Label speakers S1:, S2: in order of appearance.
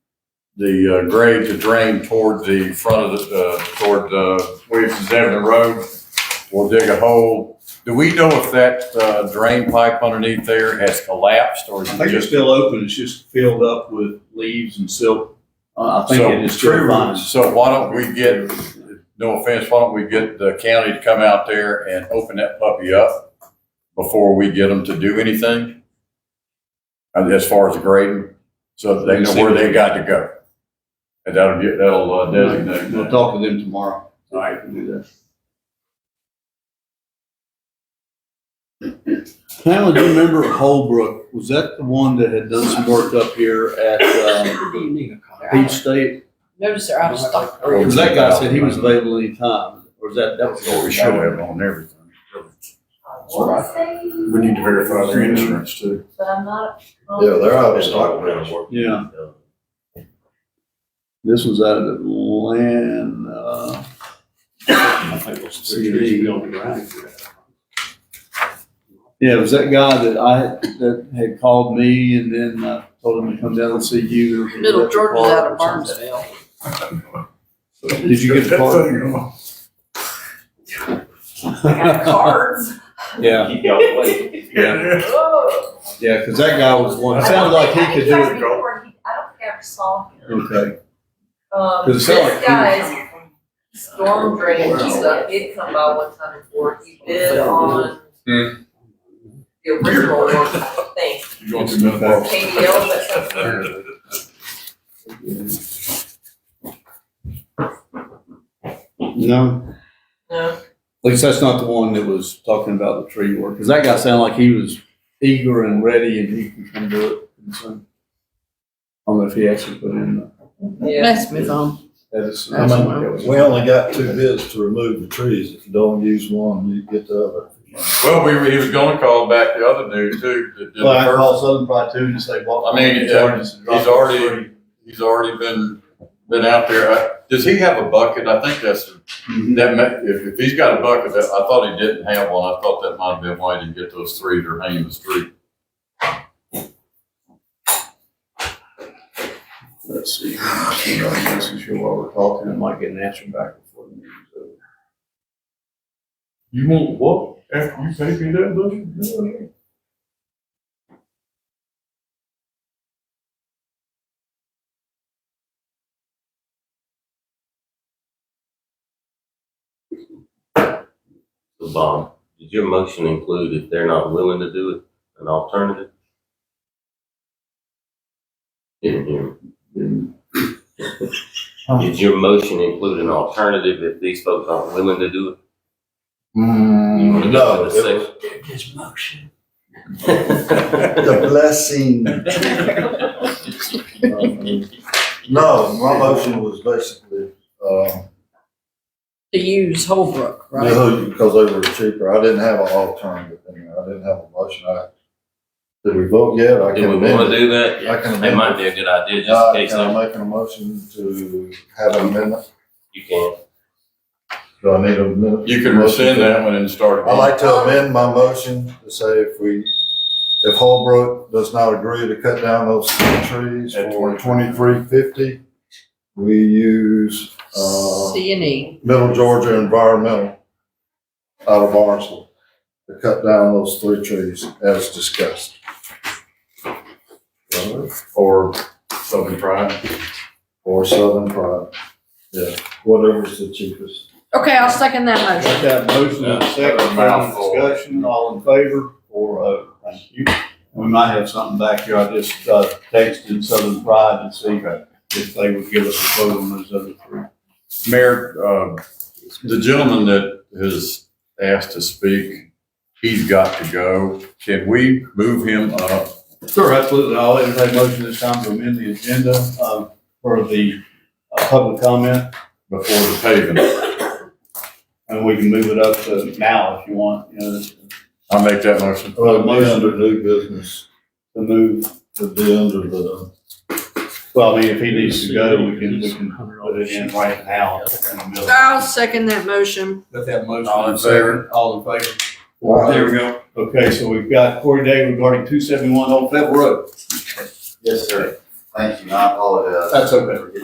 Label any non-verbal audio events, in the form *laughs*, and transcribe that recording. S1: the uh, grade to drain toward the front of the, uh, toward, uh, Williamson's Avenue Road. We'll dig a hole. Do we know if that, uh, drain pipe underneath there has collapsed or is
S2: I
S1: it
S2: think it's
S1: just?
S2: still open, it's just filled up with leaves and silk. Uh, I think
S1: So,
S2: it is still fine.
S1: So why don't we get, no offense, why don't we get the county to come out there and open that puppy up before we get them to do anything? Uh, As far as the grading, so that they know where they got to go. And that'll, get- that'll uh, designate
S2: We'll
S1: that.
S2: talk to them tomorrow.
S1: All right.
S2: Pamela, do you remember Holbrook? Was that the one that had done some work up here at um,
S3: What do you need a car?
S2: Peach State?
S3: Notice they're out of stock.
S2: Because Oh, that guy said he was available anytime, or is that, that was.
S1: Or we should have on everything.
S4: We
S1: We need to verify their insurance too.
S4: But I'm not.
S5: Yeah, they're out of stock now.
S2: Yeah, this was out of uh, Atlanta.
S3: I think it was
S2: three years ago
S3: around.
S2: Yeah, it was that guy that I, that had called me and then I told him to come down and see you.
S3: Little Jordan was out of Barnesdale.
S2: Did you get the card?
S3: I
S2: *laughs*
S3: got cards.
S2: *laughs*
S1: *laughs*
S2: Yeah, yeah, yeah, because that guy was one, it sounded like he could do
S4: I
S2: it.
S4: don't think I ever saw him.
S2: Okay,
S4: Um,
S2: Does it
S4: this
S2: sound like he-
S4: guy's storm drainage stuff did come by one time before, he bid on
S1: Hmm.
S4: the original one, I think,
S1: You going through menopause?
S4: KDL, but something.
S2: no,
S4: No,
S2: at least that's not the one that was talking about the tree work, because that guy sounded like he was eager and ready and he can come do it. And so, I don't know if he actually put in the
S4: yeah.
S3: Let's move on.
S2: Edison.
S3: That's what
S5: We only got two bids to remove the trees. If you don't use one, you get the other.
S1: Well, we, he was gonna call back the other dude too. that did the
S5: Well, I
S1: first-
S5: called Southern Pride too and say, well.
S1: I mean,
S5: it's
S1: yeah,
S5: already-
S1: he's already- He's already been, been out there. I- Does he have a bucket? I think that's,
S2: Mhm.
S1: that, ma- if, if he's got a bucket, that, I thought he didn't have one. I thought that might have been why he didn't get those three that are hanging in the street.
S2: Let's see. You know, This is here while we're talking, I might get an answer back before the meeting's over.
S1: You want what? After you pay me that,
S6: the bond, did your motion include if they're not willing to do it, an alternative? Didn't hear me. Did your motion include an alternative if these folks aren't willing to do it? You wanna
S5: Mm,
S6: go
S5: No,
S6: with the
S5: it was
S6: six?
S3: His motion.
S5: the blessing. No, my motion was basically, um,
S3: To use Holbrook, right?
S5: No, because they were cheaper. I didn't have an alternative in there. I didn't have a motion. I, did we vote yet?
S6: *laughs*
S5: I
S6: Do we
S5: can
S6: wanna
S5: amend it.
S6: do that?
S5: I can
S6: It might
S5: amend it.
S6: be a good idea, just
S5: Uh,
S6: in case,
S5: Can
S6: they-
S5: I make a motion to have an amendment?
S6: you can,
S5: Do I need a minute?
S1: You can rescind that one and start.
S5: I'd like to amend my motion to say if we, if Holbrook does not agree to cut down those three trees
S1: At
S5: for twenty-three fifty, we use, uh,
S3: C and E.
S5: Middle Georgia Environmental out of Barnesville to cut down those three trees as discussed.
S1: Or something trying.
S5: Or Southern Pride, yeah, whatever's the cheapest.
S3: Okay, I'll second that motion.
S2: Got that motion in a second, round of discussion, all in favor, four oh, thank you. We might have something back here, I just, uh, texted Southern Pride and see if they would give us a quote on those other three.
S1: Mayor, uh, the gentleman that has asked to speak, he's got to go. Can we move him up
S2: Sure, absolutely, I'll entertain a motion this time to amend the agenda, um, for the, uh, public comment,
S1: before the paving?
S2: and we can move it up to now if you want, you know, to
S1: I make that motion.
S5: Well, it'd be under new business,
S2: move.
S5: it'd be under the,
S2: Well, I mean, if he needs to go, we can, we can put it in right now in the middle.
S3: I'll second that motion.
S2: Got that motion.
S1: All in favor?
S2: All in favor.
S5: There
S2: we go. Okay, so we've got Corey Day regarding two seventy-one Old Pebble Road.
S5: yes, sir.
S7: Thank you, I apologize.
S2: That's okay.